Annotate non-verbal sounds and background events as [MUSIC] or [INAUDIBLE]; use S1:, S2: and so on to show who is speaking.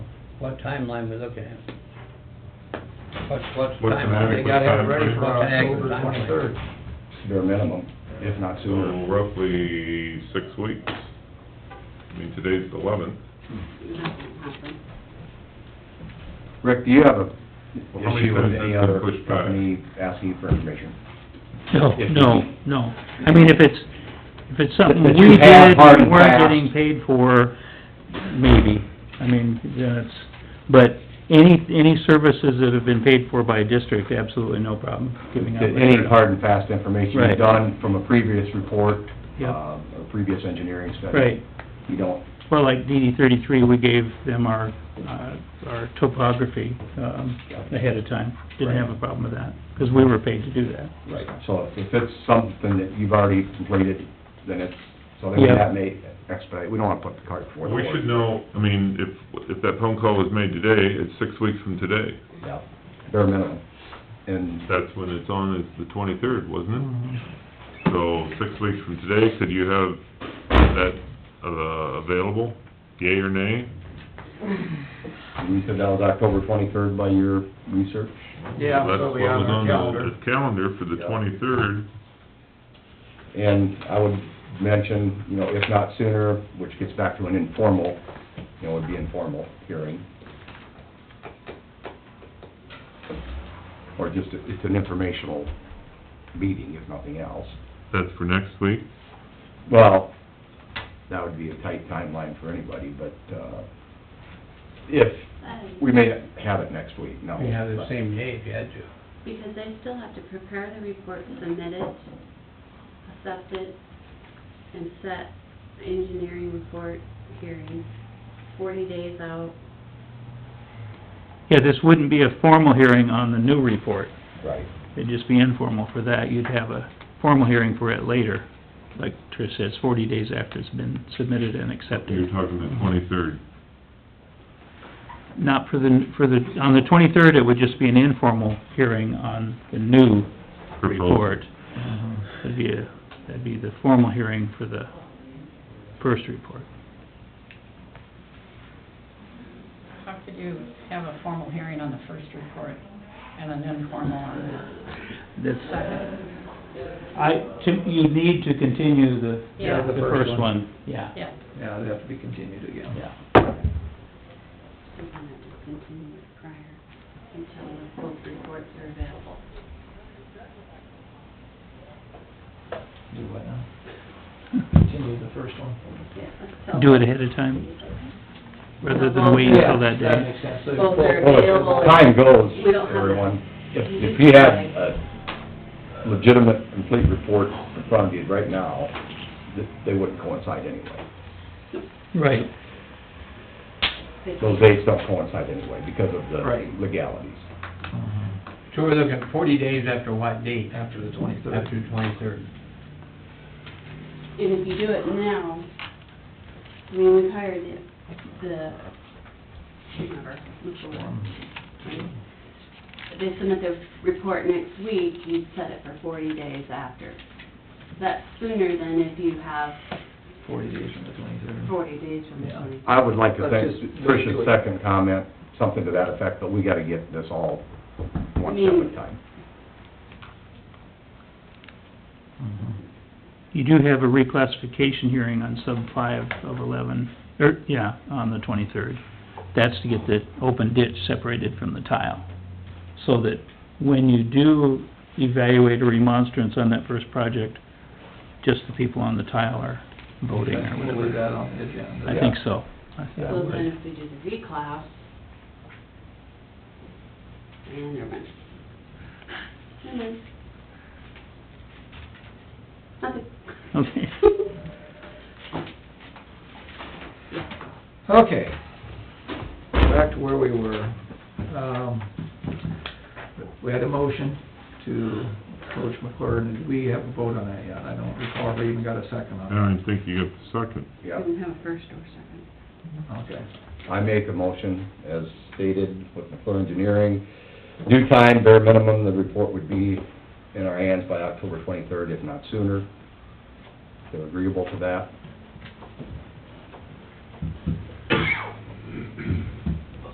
S1: What timeline we looking at? What's, what's the
S2: What's an
S1: timeline? They
S2: adequate
S1: gotta have it
S2: time
S1: ready
S2: frame?
S1: for
S2: What's an
S1: October
S2: adequate
S1: twenty-third.
S3: bare minimum, if not
S2: So
S3: sooner.
S2: roughly six weeks. I mean, today's the eleventh.
S4: Nothing happened.
S3: Rick, do you have a
S2: Well, how many
S3: issue with
S2: times has
S3: any
S2: been
S3: other
S2: pushed back?
S3: company asking for information?
S5: No,
S3: If-
S5: no, no. I mean, if it's, if it's something
S3: That you
S5: we
S3: have
S5: did
S3: hard and
S5: and weren't
S3: fast.
S5: getting paid for, maybe. I mean, that's, but any, any services that have been paid for by a district, absolutely no problem giving out.
S3: Any hard and fast information you've
S5: Right.
S3: done from a previous report, uh,
S5: Yep.
S3: a previous engineering study.
S5: Right.
S3: You don't,
S5: Well, like DD thirty-three, we gave them our, uh, our topography, um, ahead of time. Didn't have a problem with that, because we were paid to do that.
S3: right, so if if it's something that you've already completed, then it's, so then
S5: Yeah.
S3: that may expedite, we don't wanna put the cart before the
S2: We
S3: horse.
S2: should know, I mean, if, if that phone call was made today, it's six weeks from today.
S3: Yeah, bare minimum, and
S2: That's when it's on, is the twenty-third, wasn't it? So, six weeks from today, could you have that, uh, available, yea or nay?
S3: you said that was October twenty-third by your research?
S1: Yeah,
S2: That's
S1: so
S2: what
S1: we have
S2: was
S1: on the
S2: on the-
S1: calendar.
S2: the Calendar for the
S3: Yeah.
S2: twenty-third,
S3: And I would mention, you know, if not sooner, which gets back to an informal, you know, would be informal hearing. Or just, it's an informational meeting, if nothing else.
S2: that's for next week.
S3: Well, that would be a tight timeline for anybody, but, uh, if, we may have it next week, no.
S1: We have the same day if you had to.
S4: Because they still have to prepare the report, submit it, accept it, and set engineering report hearing forty days out.
S5: Yeah, this wouldn't be a formal hearing on the new report.
S3: Right.
S5: It'd just be informal for that, you'd have a formal hearing for it later, like Trish says, forty days after it's been submitted and
S2: You're
S5: accepted.
S2: talking the twenty-third.
S5: Not for the, for the, on the twenty-third, it would just be an informal hearing on the new
S2: Proposal.
S5: report. That'd be a, that'd be the formal hearing for the first report.
S6: How could you have a formal hearing on the first report and an informal on
S5: That's,
S6: the second?
S5: I, to- you need to continue the,
S6: Yeah.
S5: the first one, yeah,
S6: Yeah,
S1: Yeah, they have to be continued again.
S5: yeah.
S4: They're gonna have to continue it prior until both reports are available.
S7: Do what now? Continue the first one?
S4: Yeah,
S5: Do it ahead of time, rather than wait until that day.
S7: That makes sense. So
S4: Both
S7: both-
S4: are
S3: Well,
S4: available.
S3: if time goes,
S4: We don't have-
S3: everyone, if, if you have a legitimate, complete report in front of you right now, th- they wouldn't coincide anyway.
S5: Right.
S4: They
S3: Those
S4: can't-
S3: dates don't coincide anyway because of the
S7: Right.
S3: legalities.
S7: Mhm.
S1: So we're looking at forty days after what date?
S7: After the
S1: After
S7: twenty-third.
S1: the twenty-third.
S4: And if you do it now, I mean, we've hired the, the, whoever, Mitchell, they submit their report next week, you'd set it for forty days after. That's sooner than if you have
S7: Forty days from the twenty-third.
S4: forty days from the
S7: Yeah.
S4: twenty.
S3: I would like to
S7: Let's
S3: think
S7: just- let's do
S3: Trish's
S7: it.
S3: second comment, something to that effect, but we gotta get this all one step at a time.
S5: You do have a reclassification hearing on sub five of eleven, or, yeah, on the twenty-third. That's to get the open ditch separated from the tile. So that when you do evaluate a remonstrance on that first project, just the people on the tile are voting or
S7: We'll leave
S5: whatever.
S7: that on the agenda.
S5: I think so. I think I
S4: So
S5: would.
S4: then if we do the reclass, and never mind. Never mind. Nothing.
S5: Okay.
S4: [LAUGHS]
S7: Okay, back to where we were. Um, we had a motion to approach McClure, and we have a vote on that yet. I don't recall if we even got a second
S2: I
S7: on
S2: don't even think you have the second.
S3: Yeah,
S4: We don't have a first or second.
S7: it. Okay.
S3: I make a motion as stated with McClure Engineering. Due time, bare minimum, the report would be in our hands by October twenty-third, if not sooner. They're agreeable to that.